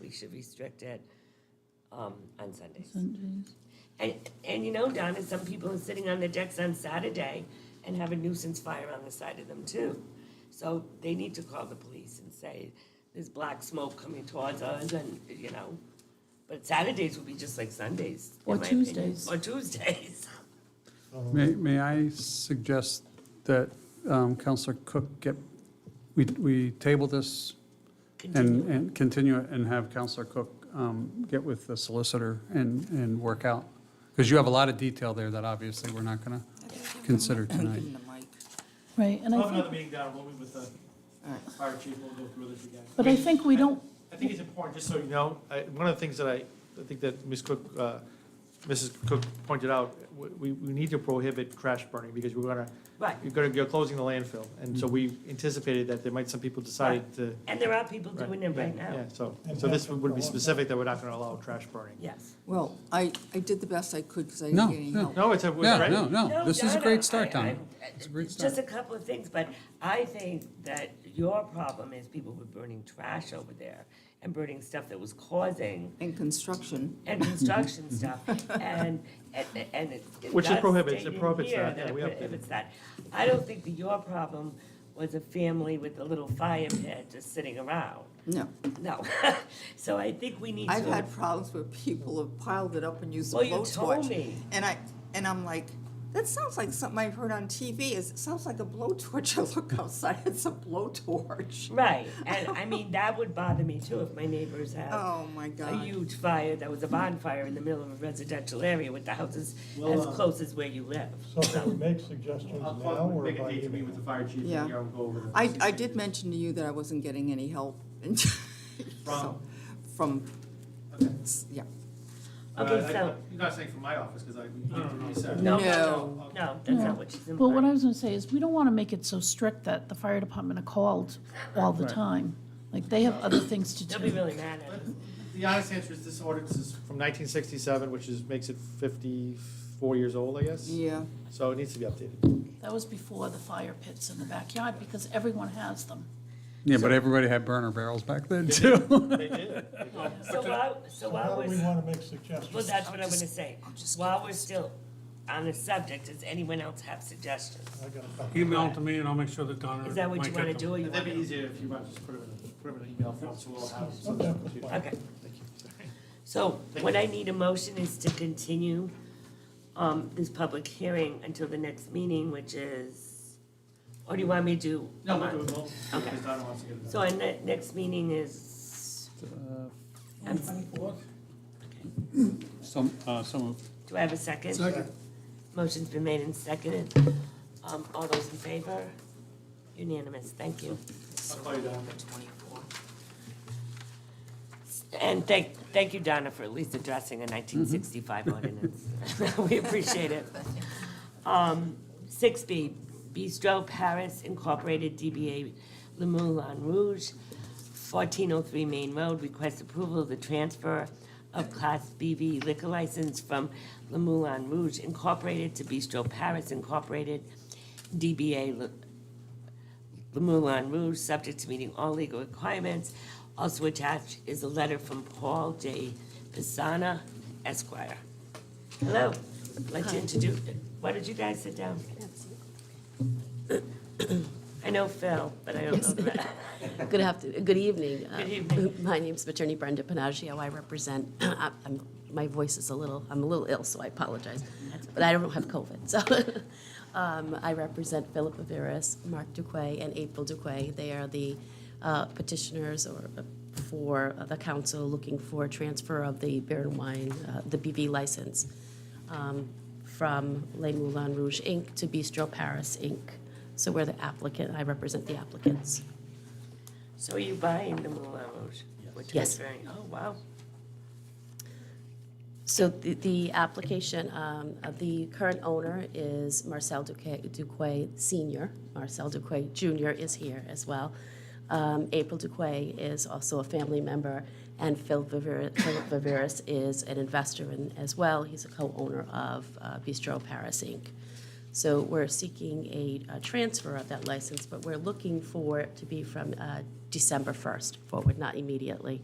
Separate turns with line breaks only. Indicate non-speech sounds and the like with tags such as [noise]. we should restrict it um, on Sundays.
Sundays.
And, and you know, Donna, some people are sitting on the decks on Saturday and have a nuisance fire on the side of them too. So they need to call the police and say, there's black smoke coming towards us and, you know. But Saturdays would be just like Sundays. in
Or
my opinion.
Tuesdays.
Or Tuesdays. [laughs]
May, may I suggest that um, Counselor Cook get, we, we table this and,
Continue.
and continue it and have Counselor Cook um, get with the solicitor and, and work out? Because you have a lot of detail there that obviously we're not going to consider tonight.
Right, and
Oh,
We'll have
I
another
think,
meeting down, we'll meet with the fire chief, we'll go through this again.
but I think we don't,
I think it's important, just so you know, I, one of the things that I, I think that Ms. Cook, uh, Mrs. Cook pointed out, w- we, we need to prohibit trash burning, because we're gonna,
Right.
you're gonna, you're closing the landfill, and
Mm-hmm.
so we anticipated that there might, some people decided to.
And there are people doing it right now.
Yeah, so, so this would be specific that we're not gonna allow trash burning.
Yes.
Well, I, I did the best I could because I
No,
didn't get any
no.
help.
No, it's a, it's
Yeah,
right.
no, no,
No,
this is a
Donna,
great start,
I-
Donna.
I'm-
It's a great
Just
start.
a couple of things, but I think that your problem is people were burning trash over there and burning stuff that was causing
And construction,
[laughs]
and construction stuff, and, and, and it. it
Which it
does
prohibits,
state
it
in
prohibits
here
that, yeah,
it
we updated.
prohibits that. I don't think that your problem was a family with a little fire pit just sitting around,
no.
no. [laughs] So I think we need to.
I've had problems where people have piled it up and used a
Well, you
blowtorch.
told me,
And I, and I'm like, that sounds like something I've heard on TV, Is it sounds like a blowtorch, [laughs] I look outside, it's a blowtorch.
right, and I mean, that would bother me too if my neighbors have.
Oh, my
a
God.
huge fire that was a bonfire in the middle of a residential area with the houses as
Well, uh,
close as where you live.
So can we make suggestions
I'll
now
call-
or by
make a date to meet
email?
with the fire chief, and
Yeah.
yeah, we'll go over. the-
I, I did mention to you that I wasn't getting any help. [laughs] and so-
From?
From,
Okay.
yeah.
Uh,
Okay,
I-
so,
You're not saying from my office, because I, you didn't really say.
no, no,
No.
no, no, that's not what she's implying.
well, what I was gonna say is, we don't wanna make it so strict that the fire department are called all the time. Like, they have other things to
They'll be
do.
really mad at us.
The honest answer is this ordinance is from nineteen sixty-seven, which is, makes it fifty-four years old, I guess.
Yeah,
So it needs to be updated.
That was before the fire pits in the backyard, because everyone has them.
Yeah, but everybody had burner barrels back then, [laughs] too.
They did.
So while, so
So
while
how do we
we're,
want to make suggestions?
well, that's what I'm gonna say.
just
While we're still on the subject, does anyone else have suggestions?
I got a couple.
Email them to me and I'll make sure that
Uh,
Donna.
Is that what you
might
wanna
get
do
them.
or you
That'd be
wanna?
easier if you might just put it in, put it in an email form, so we'll have it.
Okay.
Okay. So what I need a motion is to continue, um, this public hearing until the next meeting, which is, or do you want me to do?
No, we'll do it both,
Okay.
because Donna wants to get it done.
So our ne- next meeting is, um, I'm-
Some, uh, some of
do I have a second?
Second.
Motion's been made and seconded. Um, all those in favor? Unanimous, thank you.
I'll call you down.
And thank, thank you, Donna, for at least addressing a nineteen sixty-five ordinance. [laughs] We appreciate it. Um, six B, Bistro Paris Incorporated, DBA Le Moulin Rouge, fourteen oh three Main Road, request approval of the transfer of Class BV liquor license from Le Moulin Rouge Incorporated to Bistro Paris Incorporated, DBA Le the Moulin Rouge, subject to meeting all legal requirements. Also attached is a letter from Paul J. Pisana Esquire. Hello, I'd like to introduce, why don't you guys sit down? I know Phil, but I don't know the rest.
[laughs] Good afternoon, good evening. Uh,
Good evening.
[laughs] My name's Attorney Brenda Panaggio. I represent, [clears throat] I- I'm, my voice is a little, I'm a little ill, so I apologize. But I don't have COVID, so. [laughs] um, I represent Philip Averis, Mark Duquay, and April Duquay. They are the uh, petitioners or uh, for the council looking for transfer of the beer and wine, uh, the BV license um, from Les Moulin Rouge, Inc. to Bistro Paris, Inc. So we're the applicant, I represent the applicants.
So are you buying the Moulin Rouge? We're
Yes.
transferring- Oh, wow.
So the, the application, um, uh, the current owner is Marcel Duque, Duque Senior. Marcel Duque Junior is here as well. Um, April Duque is also a family member, and Phil Viver- Philip Viveris is an investor in, as well. He's a co-owner of uh, Bistro Paris Inc. So we're seeking a, a transfer of that license, but we're looking for it to be from, uh, December first forward, not immediately.